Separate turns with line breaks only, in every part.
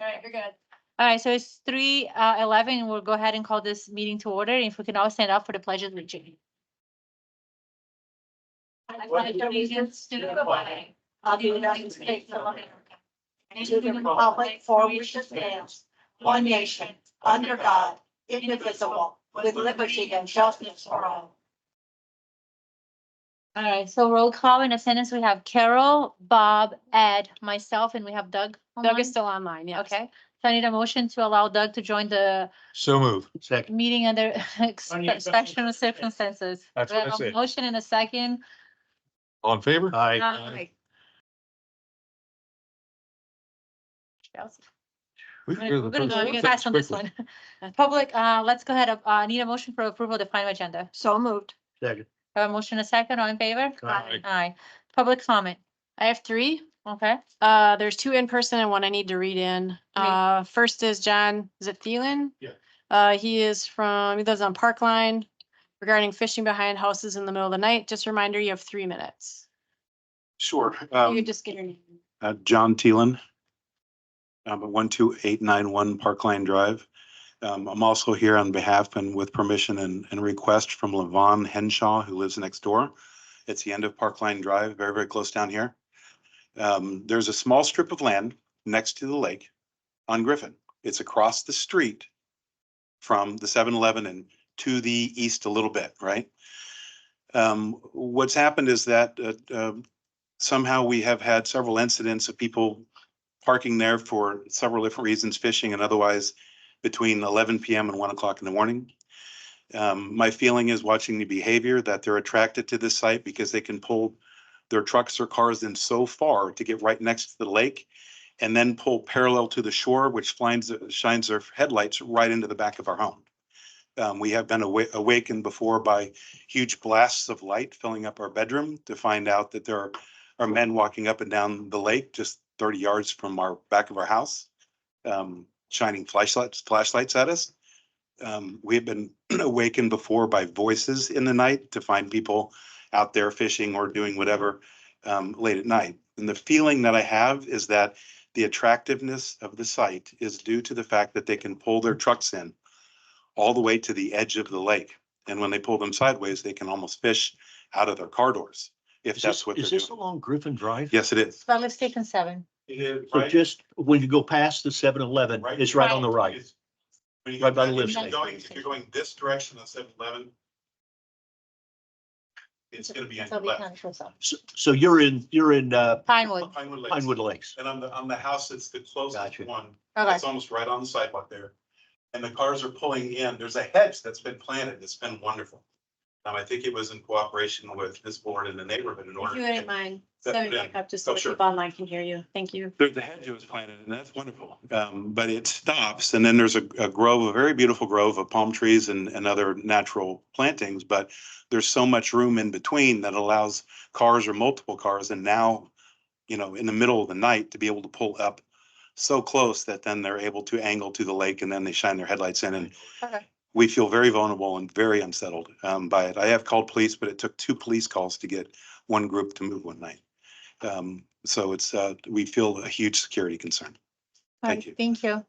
All right, you're good.
All right, so it's three uh eleven. We'll go ahead and call this meeting to order. If we can all stand up for the pledge of allegiance.
I pledge allegiance to the flag of the United States of America and to the republic for which it stands, one nation, under God, indivisible, with liberty and justice for all.
All right, so roll call in attendance, we have Carol, Bob, Ed, myself, and we have Doug.
Doug
online.
is still online, yes.
Oh, Okay, so I need a motion to allow Doug to join the
So move. Second.
meeting under
Only if-
exceptional circumstances.
That's
We have
what I
a
said.
Motion in a second.
All in favor?
Aye.
Aye.
Chelsea.
We
All right, We're gonna go
first-
fast on this
quickly.
one. Public, uh, let's go ahead, uh, need a motion for approval of the final agenda.
So moved.
Second.
Have a motion in a second, all in favor?
Aye.
Aye. Public comment,
I have three.
okay?
Uh, there's two in person and one I need to read in. Uh, first is John, is it Thielen?
Yeah.
Uh, he is from, he lives on Park Line regarding fishing behind houses in the middle of the night. Just a reminder, you have three minutes.
Sure.
You
Um,
could just get your name.
uh, John Thielen. Um, at one two eight nine one Park Line Drive. Um, I'm also here on behalf and with permission and, and request from Levon Henshaw, who lives next door. It's the end of Park Line Drive, very, very close down here. Um, there's a small strip of land next to the lake on Griffin. It's across the street from the 7-Eleven and to the east a little bit, right? Um, what's happened is that, uh, uh, somehow we have had several incidents of people parking there for several different reasons, fishing and otherwise, between eleven PM and one o'clock in the morning. Um, my feeling is watching the behavior that they're attracted to this site because they can pull their trucks or cars in so far to get right next to the lake and then pull parallel to the shore, which finds, shines their headlights right into the back of our home. Um, we have been awa- awakened before by huge blasts of light filling up our bedroom to find out that there are are men walking up and down the lake just thirty yards from our back of our house, um, shining flashlights, flashlights at us. Um, we have been awakened before by voices in the night to find people out there fishing or doing whatever um, late at night. And the feeling that I have is that the attractiveness of the site is due to the fact that they can pull their trucks in all the way to the edge of the lake. And when they pull them sideways, they can almost fish out of their car doors, if
Is
that's
this,
what they're doing.
is this along Griffin Drive?
Yes, it is.
Public station seven.
So just when you go past the seven eleven,
Right.
it's right on the right.
It's- when you
Right
go
by the
back,
lift
if you're
station.
going- If you're going this direction on seven eleven. It's gonna be on
So
your
we
left.
can close up.
So, so you're in, you're in, uh,
Pinewood,
Pinewood Lakes.
Pinewood Lakes.
And on the, on the house, it's the closest
Gotcha.
one.
okay,
It's almost right on the sidewalk there. And the cars are pulling in. There's a hedge that's been planted. It's been wonderful. Um, I think it was in cooperation with this board and the neighborhood in order.
If you
to
wouldn't mind,
that
setting
put in.
back up just so
Oh,
the
sure.
people online can hear you. Thank you.
There's a hedge that was planted and that's wonderful. Um, but it stops and then there's a, a grove, a very beautiful grove of palm trees and, and other natural plantings. But there's so much room in between that allows cars or multiple cars and now, you know, in the middle of the night to be able to pull up so close that then they're able to angle to the lake and then they shine their headlights in and
Okay.
we feel very vulnerable and very unsettled um, by it. I have called police, but it took two police calls to get one group to move one night. Um, so it's, uh, we feel a huge security concern. Thank you.
thank you.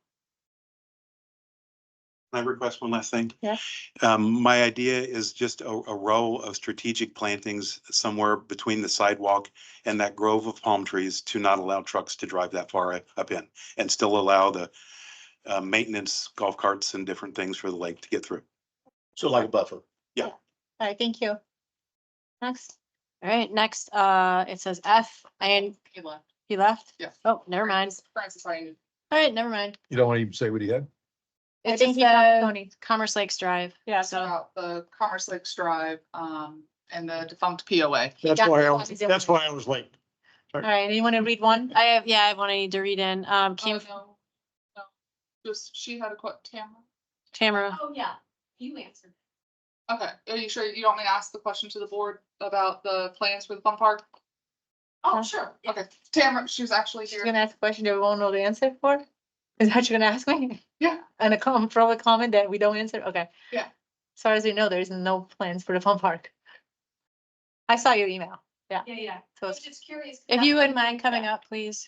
Can I request one last thing?
Yes.
Um, my idea is just a, a row of strategic plantings somewhere between the sidewalk and that grove of palm trees to not allow trucks to drive that far up in and still allow the uh, maintenance golf carts and different things for the lake to get through.
So like a buffer.
All right, thank you. Next.
All right, next, uh, it says F and
Good luck.
he left.
Yeah.
Oh, never mind.
Francis, sorry.
All right, never mind.
You don't want to even say what he had?
I
It
think
just
he got
said
Tony.
Commerce Lakes Drive.
Yeah,
so-
so about the Commerce Lakes Drive, um, and the defunct POA.
That's
Yeah,
why I,
that's
was-
why he's
that's
doing
why I was late.
All right, anyone to read one?
I have, yeah, I have one I need to read in. Um,
Oh,
came
no, no. Just, she had a quote, Tamara?
Tamara.
Oh, yeah, you answered.
Okay, are you sure you don't want me to ask the question to the board about the plans for the fun park?
Oh, sure. yeah.
Okay, Tamara, she was actually
She's
here.
gonna ask a question that we won't know the answer for? Is that what you're gonna ask me?
Yeah.
And a com, probably comment that we don't answer, okay?
Yeah.
As far as we know, there is no plans for the fun park. I saw your email,
Yeah, yeah.
so
I
it's-
was just curious. 'cause
If
that's
you
what
wouldn't mind coming
Yeah.
up, please.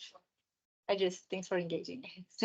I just, thanks for engaging.